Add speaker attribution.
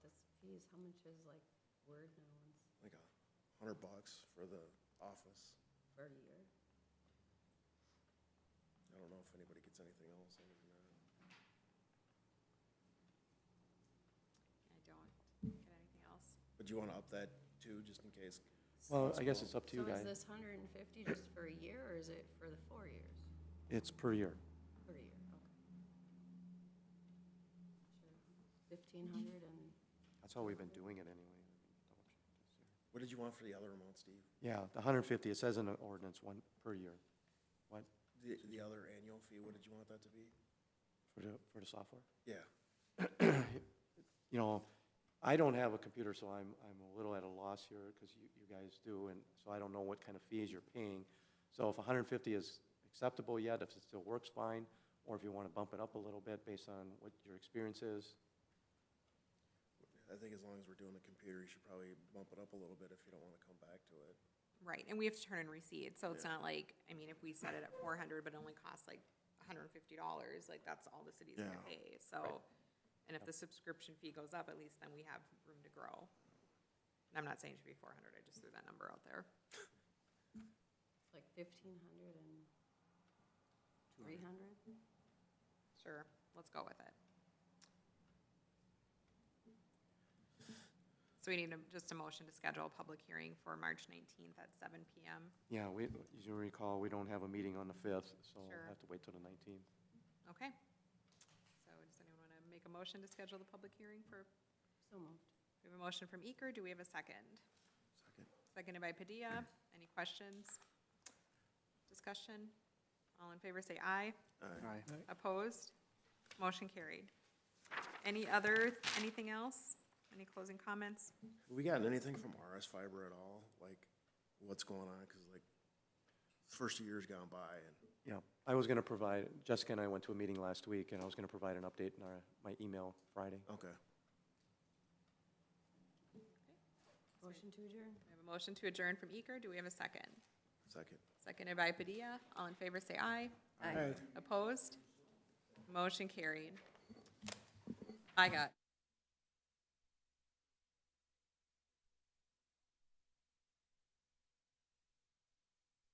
Speaker 1: geez, how much is like Word now It's
Speaker 2: like a hundred bucks for the office.
Speaker 1: for a year?
Speaker 2: I don't know if anybody gets anything else other than that.
Speaker 3: I don't get anything else.
Speaker 2: But do you wanna up that too, just in case?
Speaker 4: Well, I guess it's up to you
Speaker 1: So is
Speaker 4: guys.
Speaker 1: this hundred and fifty just for a year, or is it for the four years?
Speaker 4: It's per year.
Speaker 1: Per year, okay. Sure. Fifteen hundred and,
Speaker 4: That's how we've been doing it anyway.
Speaker 2: What did you want for the other amount, Steve?
Speaker 4: Yeah, the hundred and fifty, it says in the ordinance, one per year. What,
Speaker 2: The, the other annual fee, what did you want that to be?
Speaker 4: for the, for the software?
Speaker 2: Yeah,
Speaker 4: You know, I don't have a computer, so I'm, I'm a little at a loss here, because you, you guys do, and so I don't know what kind of fees you're paying. So if hundred and fifty is acceptable yet, if it still works fine, or if you want to bump it up a little bit based on what your experience is,
Speaker 2: I think as long as we're doing the computer, you should probably bump it up a little bit if you don't wanna come back to it.
Speaker 3: Right, and we have to turn in receipts, so it's
Speaker 2: Yeah.
Speaker 3: not like, I mean, if we set it at four hundred, but it only costs like hundred and fifty dollars, like, that's all the city's gonna
Speaker 2: Yeah.
Speaker 3: pay, so. And if the subscription fee goes up, at least then we have room to grow. And I'm not saying it should be four hundred, I just threw that number out there.
Speaker 1: it's like fifteen hundred and three hundred?
Speaker 3: Sure, let's go with it. So we need a- just a motion to schedule a public hearing for March nineteenth at seven PM.
Speaker 4: yeah, we, as you recall, we don't have a meeting on the fifth, so
Speaker 3: Sure.
Speaker 4: we'll have to wait till the nineteenth.
Speaker 3: Okay. So does anyone want to make a motion to schedule the public hearing for,
Speaker 1: So moved.
Speaker 3: we have a motion from Eker, do we have a second?
Speaker 2: Second.
Speaker 3: Seconded by Padilla, any questions? Discussion? All in favor, say aye.
Speaker 2: Aye.
Speaker 3: Opposed? Motion carried. Any other, anything else? Any closing comments?
Speaker 2: Have we gotten anything from RS Fiber at all? Like, what's going on? Cause like, first year's gone by and
Speaker 4: Yeah, I was gonna provide, Jessica and I went to a meeting last week, and I was gonna provide an update in our, my email Friday.
Speaker 2: Okay.
Speaker 1: Motion to adjourn?
Speaker 3: We have a motion to adjourn from Eker, do we have a second?
Speaker 2: Second.
Speaker 3: Seconded by Padilla, all in favor, say aye.
Speaker 1: Aye.
Speaker 3: Opposed? Motion carried. I got.